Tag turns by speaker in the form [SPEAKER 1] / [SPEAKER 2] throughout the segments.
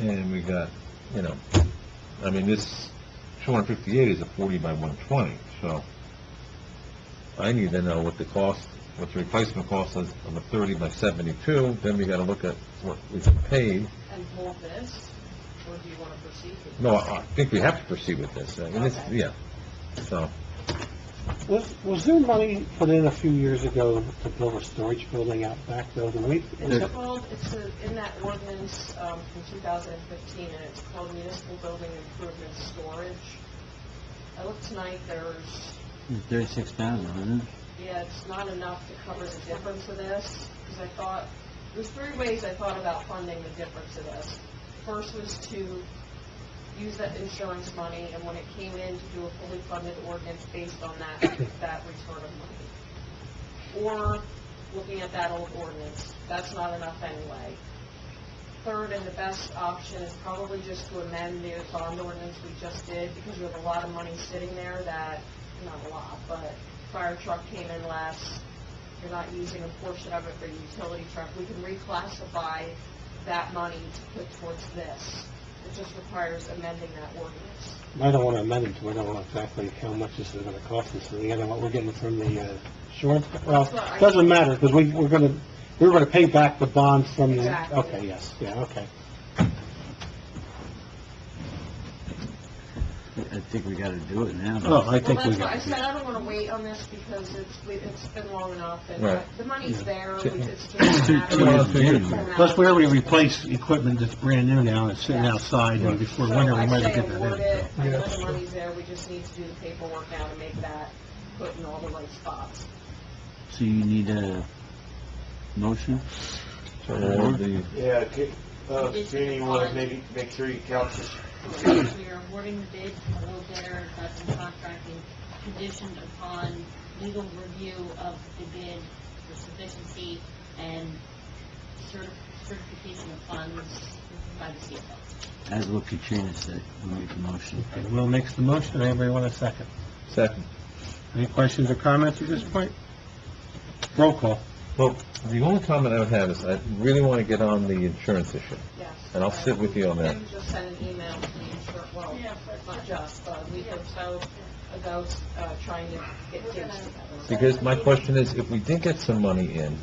[SPEAKER 1] and we got, you know, I mean, this 258 is a 40 by 120, so I need to know what the cost, what the replacement cost is on the 30 by 72, then we gotta look at what we can pay.
[SPEAKER 2] and pull this, or do you want to proceed with
[SPEAKER 1] No, I I think we have to proceed with this, I mean, it's,
[SPEAKER 2] Okay.
[SPEAKER 1] yeah, so,
[SPEAKER 3] Was, was there money put in a few years ago to build a storage building out back though? Do we,
[SPEAKER 2] it?
[SPEAKER 3] is
[SPEAKER 2] It's
[SPEAKER 3] it-
[SPEAKER 2] called, it's a- in that ordinance um, from 2015, and it's called Municipal Building Improvement Storage. I looked tonight, there's,
[SPEAKER 4] Thirty-six thousand, isn't it?
[SPEAKER 2] yeah, it's not enough to cover the difference of this, because I thought, there's three ways I thought about funding the difference of this. First was to use that insurance money, and when it came in, to do a fully funded ordinance based on that, that return of money. Or looking at that old ordinance, that's not enough anyway. Third and the best option is probably just to amend the bond ordinance we just did, because we have a lot of money sitting there that, not a lot, but fire truck came in last, you're not using a portion of it for your utility truck, we can reclassify that money to put towards this. It just requires amending that ordinance.
[SPEAKER 3] I don't want to amend it, 'cause I don't know exactly how much this is going to cost us, and the other what we're getting from the uh, insurance, well, it doesn't matter, because we, we're going to, we're going to pay back the bond from the...
[SPEAKER 2] Exactly.
[SPEAKER 3] Okay, yes, yeah, okay.
[SPEAKER 4] I think we gotta do it now.
[SPEAKER 3] Oh, I think we
[SPEAKER 2] Well,
[SPEAKER 3] got
[SPEAKER 2] that's why I said I don't want to wait on this because it's, we- it's been long enough and uh,
[SPEAKER 1] Right.
[SPEAKER 2] the money's there,
[SPEAKER 1] Yeah.
[SPEAKER 2] we- it's just a matter
[SPEAKER 3] two
[SPEAKER 2] of...
[SPEAKER 3] years,
[SPEAKER 4] two years.
[SPEAKER 2] Formality.
[SPEAKER 3] Plus, we already replaced equipment that's brand new now, and it's sitting
[SPEAKER 2] Yes.
[SPEAKER 3] outside, and before
[SPEAKER 2] So
[SPEAKER 3] winter, we might
[SPEAKER 2] I
[SPEAKER 3] as
[SPEAKER 2] say
[SPEAKER 3] well get
[SPEAKER 2] award
[SPEAKER 3] that
[SPEAKER 2] it,
[SPEAKER 3] in.
[SPEAKER 2] I know the money's there, we just need to do the paperwork now to make that, put in all the right spots.
[SPEAKER 4] So you need a motion?
[SPEAKER 1] so all the,
[SPEAKER 5] Yeah, okay, uh, Jeannie, you wanna maybe make sure you count this?
[SPEAKER 6] We are awarding the bid to low bidder, Hudson Contracting, conditioned upon legal review of the bid for sufficiency and certi- certification of funds by the CFO.
[SPEAKER 4] As what Katrina said, we make a motion.
[SPEAKER 3] Okay, Will makes the motion, anybody want a second?
[SPEAKER 1] second.
[SPEAKER 3] Any questions or comments at this point? Roll call.
[SPEAKER 1] Well, the only comment I would have is, I really wanna get on the insurance issue,
[SPEAKER 2] Yes.
[SPEAKER 1] and I'll sit with you on that.
[SPEAKER 2] Maybe just send an email to the insurance, well, not just, but a week or so ago, uh, trying to get things together.
[SPEAKER 1] Because my question is, if we did get some money in,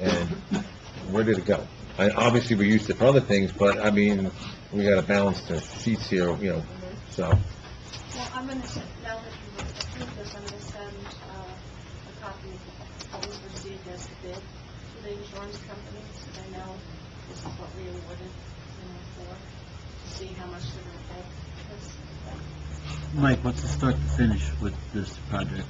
[SPEAKER 1] and where did it go? I, obviously, we used it for other things, but, I mean, we gotta balance the sheets here, you know, so,
[SPEAKER 7] Well, I'm going to, now that you approve this, I'm going to send uh, a copy of what was received as a bid to the insurance company, so they know this is what we awarded, you know, for, to see how much they're going to pay. That's-
[SPEAKER 4] Mike, what's the start to finish with this project?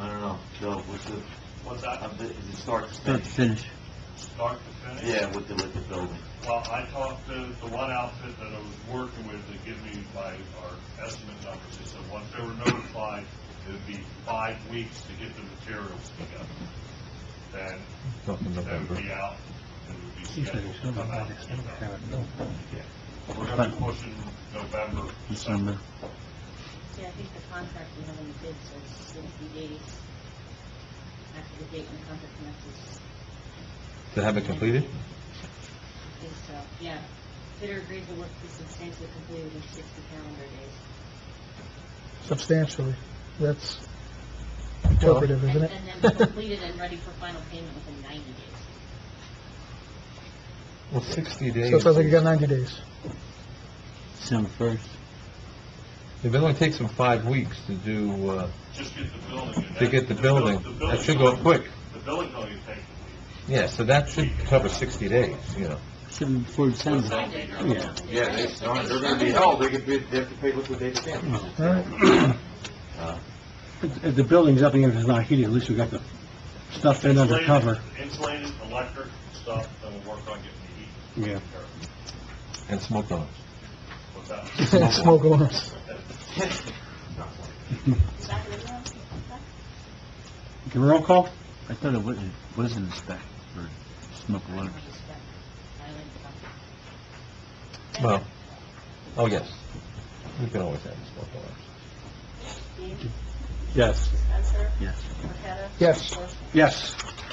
[SPEAKER 5] I don't know, Joe, what's the,
[SPEAKER 8] What's that?
[SPEAKER 5] uh, the- is it start to
[SPEAKER 4] Start to
[SPEAKER 5] finish?
[SPEAKER 4] finish.
[SPEAKER 8] Start to finish?
[SPEAKER 5] Yeah, with the, with the building.
[SPEAKER 8] Well, I talked to the one outfit that I was working with to give me my, our estimate numbers. They said once they were notified, it would be five weeks to get the materials together. Then
[SPEAKER 1] something
[SPEAKER 8] they
[SPEAKER 1] November.
[SPEAKER 8] would be out, and it would be scheduled to come out. We're gonna be pushing November, December.
[SPEAKER 4] December.
[SPEAKER 6] See, I think the contract we have in the bid says sixty days after the date when the contract commences
[SPEAKER 1] To have it completed?
[SPEAKER 6] is, uh, yeah, bidder agrees the work to be substantially completed within sixty calendar days.
[SPEAKER 9] substantially. That's
[SPEAKER 1] Well,
[SPEAKER 9] interpretive, isn't it?
[SPEAKER 6] And then completed and ready for final payment within ninety days.
[SPEAKER 1] Well, sixty
[SPEAKER 9] So
[SPEAKER 1] days.
[SPEAKER 9] it sounds like you got 90 days.
[SPEAKER 4] December first.
[SPEAKER 1] If it only takes them five weeks to do, uh,
[SPEAKER 8] Just get the building. and
[SPEAKER 1] to get the
[SPEAKER 8] bill-
[SPEAKER 1] building,
[SPEAKER 8] the
[SPEAKER 1] that
[SPEAKER 8] building-
[SPEAKER 1] should go quick.
[SPEAKER 8] The building's only gonna take a week.
[SPEAKER 1] Yeah, so that should cover sixty days, you know.
[SPEAKER 4] Seven before December.
[SPEAKER 3] Oh,
[SPEAKER 5] Yeah. Yeah, they start, they're gonna be held, they could be, they have to pay liquidated damages.
[SPEAKER 9] All right.
[SPEAKER 3] If if the building's up, even if it's not heated, at least we got the stuff in under
[SPEAKER 8] Insulated-
[SPEAKER 3] cover.
[SPEAKER 8] Insulated, electric stuff, then we'll work on getting the heat.
[SPEAKER 3] Yeah.
[SPEAKER 1] And smoke alarms.
[SPEAKER 8] What's that?
[SPEAKER 9] Smoke alarms.
[SPEAKER 7] Is that what you want?
[SPEAKER 3] Can we roll call?
[SPEAKER 4] I thought it wasn't, wasn't a spec for smoke
[SPEAKER 6] I
[SPEAKER 4] alarms.
[SPEAKER 6] don't expect- I like the contract.
[SPEAKER 1] Well, oh, yes. We can always have smoke alarms.
[SPEAKER 3] Yes.
[SPEAKER 7] Spencer,
[SPEAKER 4] Yes.
[SPEAKER 7] Marqueta?
[SPEAKER 9] Yes.
[SPEAKER 3] Yes.